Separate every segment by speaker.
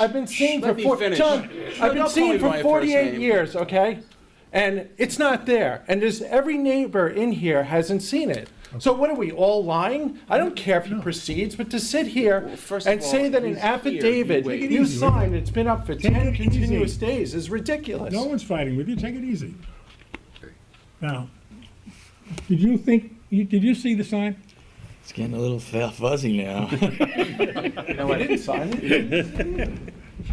Speaker 1: I've been seeing for
Speaker 2: let me
Speaker 1: four,
Speaker 2: finish.
Speaker 1: John,
Speaker 2: Shut
Speaker 1: I've been
Speaker 2: up
Speaker 1: seeing
Speaker 2: calling
Speaker 1: for
Speaker 2: my first
Speaker 1: 48
Speaker 2: name.
Speaker 1: years, okay? And it's not there. And there's, every neighbor in here hasn't seen it. So what are we, all lying? I don't care if he proceeds, but to sit here
Speaker 2: Well, first of
Speaker 1: and say
Speaker 2: all,
Speaker 1: that an
Speaker 2: he's here.
Speaker 1: affidavit
Speaker 2: You wait.
Speaker 1: you signed, it's been up for 10
Speaker 3: it easy.
Speaker 1: continuous days is ridiculous.
Speaker 3: No one's fighting with you, take it easy. Now, did you think, you, did you see the sign?
Speaker 4: It's getting a little fu- fuzzy now.
Speaker 1: He didn't sign it.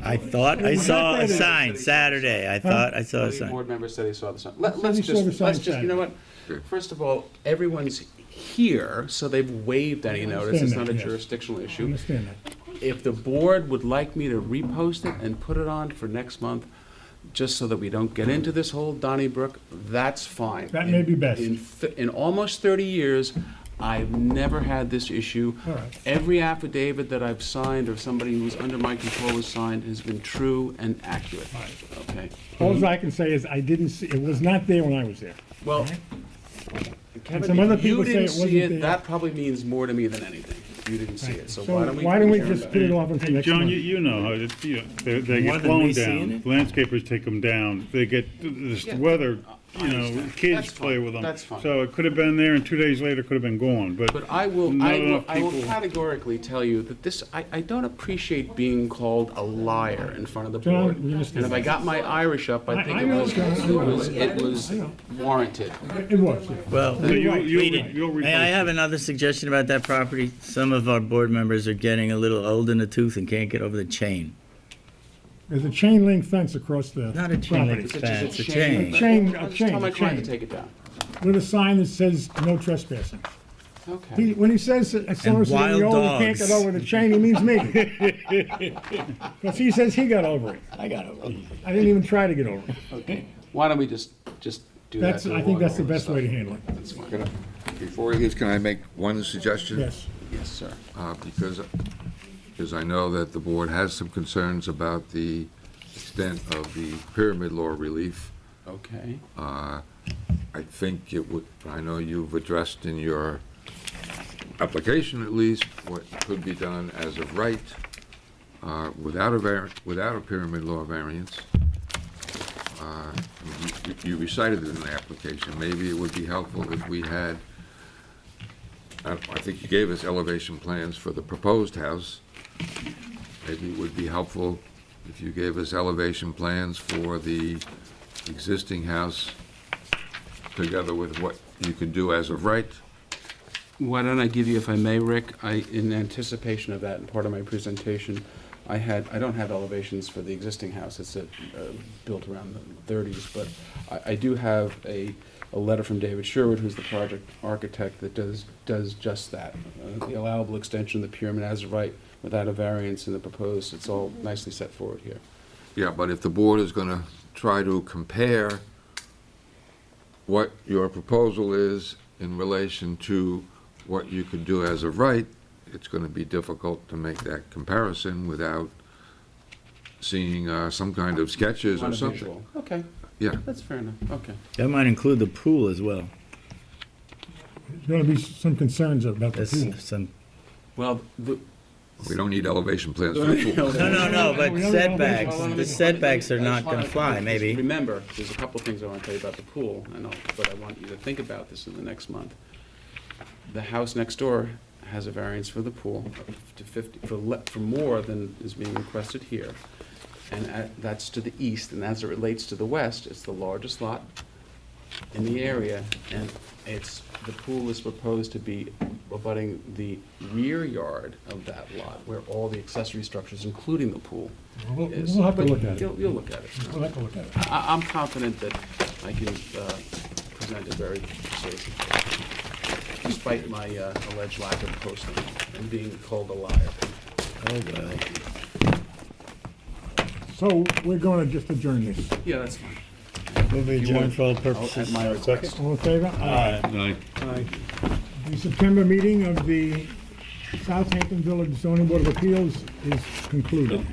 Speaker 5: I thought I saw a sign Saturday. I thought I saw a
Speaker 2: Many
Speaker 5: sign.
Speaker 2: board members said they saw the sign. Let,
Speaker 3: said
Speaker 2: us
Speaker 3: they saw the
Speaker 2: just,
Speaker 3: sign
Speaker 2: let's just, you know what?
Speaker 3: Saturday.
Speaker 2: First of all, everyone's here, so they've waived any notice.
Speaker 3: understand
Speaker 2: It's not
Speaker 3: that,
Speaker 2: a
Speaker 3: yes.
Speaker 2: jurisdictional
Speaker 3: I
Speaker 2: issue.
Speaker 3: understand that.
Speaker 2: If the board would like me to repost it and put it on for next month, just so that we don't get into this whole Donnybrook, that's fine.
Speaker 3: That may be best.
Speaker 2: In, th- in almost 30 years, I've never had this issue.
Speaker 3: All right.
Speaker 2: Every affidavit that I've signed or somebody who's under my control has signed has been true and accurate. Okay?
Speaker 3: All I can say is I didn't see, it was not there when I was there.
Speaker 2: Well,
Speaker 3: some
Speaker 2: Kevin,
Speaker 3: other
Speaker 2: if you
Speaker 3: people say
Speaker 2: didn't
Speaker 3: it wasn't
Speaker 2: see it,
Speaker 3: there.
Speaker 2: that probably means more to me than anything. if You didn't see it, so
Speaker 3: So
Speaker 2: why don't we?
Speaker 3: why don't we
Speaker 2: adjourn
Speaker 3: just
Speaker 2: that?
Speaker 3: put it off until next
Speaker 6: John, you,
Speaker 3: month?
Speaker 6: you know how it's, you know, they, they
Speaker 4: More
Speaker 6: get
Speaker 4: than me
Speaker 6: blown
Speaker 4: seeing
Speaker 6: down.
Speaker 4: it?
Speaker 6: Landscapers take them down. They get, this
Speaker 2: Yeah.
Speaker 6: weather,
Speaker 2: I
Speaker 6: you know,
Speaker 2: understand. That's
Speaker 6: kids
Speaker 2: fine.
Speaker 6: play with them.
Speaker 2: That's fine.
Speaker 6: So it could have been there and two days later could have been gone, but.
Speaker 2: But I will,
Speaker 6: not
Speaker 2: I will,
Speaker 6: enough
Speaker 2: I will
Speaker 6: people-
Speaker 2: categorically tell you that this, I, I don't appreciate being called a liar in front of the
Speaker 3: John,
Speaker 2: board.
Speaker 3: we understand.
Speaker 2: And if I got my Irish up, I
Speaker 3: I-
Speaker 2: think
Speaker 3: I
Speaker 2: it
Speaker 3: know,
Speaker 2: was,
Speaker 3: John, I
Speaker 2: it
Speaker 3: know.
Speaker 2: was, it was warranted.
Speaker 3: It was, yeah.
Speaker 5: Well,
Speaker 6: So you,
Speaker 3: Right.
Speaker 6: you'll,
Speaker 4: Read
Speaker 6: re-
Speaker 4: it.
Speaker 6: you'll replace
Speaker 4: May I have
Speaker 6: it.
Speaker 4: another suggestion about that property? Some of our board members are getting a little old in the tooth and can't get over the chain.
Speaker 3: There's a chain link fence across the
Speaker 4: Not a chain
Speaker 3: property
Speaker 4: link
Speaker 2: It's just
Speaker 4: fence, a
Speaker 2: shame.
Speaker 4: chain.
Speaker 3: Chain-
Speaker 2: I'll
Speaker 3: a
Speaker 2: just tell
Speaker 3: chain,
Speaker 2: my
Speaker 3: a
Speaker 2: client to
Speaker 3: chain.
Speaker 2: take it down.
Speaker 3: with a sign that says no trespassing. He-
Speaker 2: Okay.
Speaker 3: When he says that someone's getting
Speaker 4: wild
Speaker 3: old, he can't
Speaker 4: dogs.
Speaker 3: get over the chain, he means me. Because he says he got over it.
Speaker 4: I got it.
Speaker 3: I didn't even try to get over it.
Speaker 2: Why don't we just, just do that?
Speaker 3: That's,
Speaker 2: to
Speaker 3: I
Speaker 2: avoid
Speaker 3: think that's the
Speaker 2: all this
Speaker 3: best way to
Speaker 2: stuff?
Speaker 3: handle it.
Speaker 2: That's fine.
Speaker 7: Can I- Before he leaves, can I make one suggestion?
Speaker 3: Yes.
Speaker 2: Yes, sir.
Speaker 7: Uh, Because, because I know that the board has some concerns about the extent of the pyramid law relief.
Speaker 2: Okay.
Speaker 7: Uh, I think it would, I know you've addressed in your application at least, what could be done as of right, uh, without a var, without a pyramid law variance. Uh, you- You recited it in the application, maybe it would be helpful if we had, I, I think you gave us elevation plans for the proposed house. Maybe it would be helpful if you gave us elevation plans for the existing house together with what you can do as of right.
Speaker 2: Why don't I give you, if I may, Rick, I, in anticipation of that, and part of my presentation, I had, I don't have elevations for the existing house, it's uh, uh, built around the thirties, but I, I do have a, a letter from David Sherwood, who's the project architect, that does, does just that. Uh, The allowable extension of the pyramid as of right, without a variance in the proposed, it's all nicely set forward here.
Speaker 7: Yeah, but if the board is going to try to compare what your proposal is in relation to what you could do as of right, it's going to be difficult to make that comparison without seeing uh, some kind of sketches
Speaker 2: On
Speaker 7: or
Speaker 2: a
Speaker 7: something.
Speaker 2: visual. Okay,
Speaker 7: Yeah,
Speaker 2: that's fair enough, okay.
Speaker 4: That might include the pool as well.
Speaker 3: There's gonna be some concerns about the
Speaker 4: That's
Speaker 3: pool.
Speaker 4: some,
Speaker 2: Well, the,
Speaker 7: we don't need elevation plans for the pool.
Speaker 4: no, no, no, but
Speaker 3: We already know
Speaker 4: setbacks,
Speaker 3: this one.
Speaker 4: the setbacks are
Speaker 2: I just
Speaker 4: not gonna
Speaker 2: wanna-
Speaker 4: fly,
Speaker 2: just
Speaker 4: maybe.
Speaker 2: Remember, there's a couple of things I want to tell you about the pool, and I'll, but I want you to think about this in the next month. The house next door has a variance for the pool to fifty, for le, for more than is being requested here. And at- that's to the east, and as it relates to the west, it's the largest lot in the area, and it's, the pool is proposed to be abutting the rear yard of that lot, where all the accessory structures, including the pool,
Speaker 3: We'll
Speaker 2: is.
Speaker 3: we'll have to
Speaker 2: But
Speaker 3: look at it.
Speaker 2: You'll, you'll look at it.
Speaker 3: We'll have to look at it.
Speaker 2: I, I'm confident that I can uh, present it very persuasively, despite my uh, alleged lack of posting and being called a liar.
Speaker 4: Oh, well.
Speaker 3: So we're gonna just adjourn this.
Speaker 2: Yeah, that's fine.
Speaker 4: Move adjourned for all
Speaker 2: I'll-
Speaker 4: purposes.
Speaker 2: At my request.
Speaker 3: All in favor? Aye.
Speaker 6: Aye.
Speaker 3: The September meeting of the Southampton Village Zoning Board of Appeals is concluded.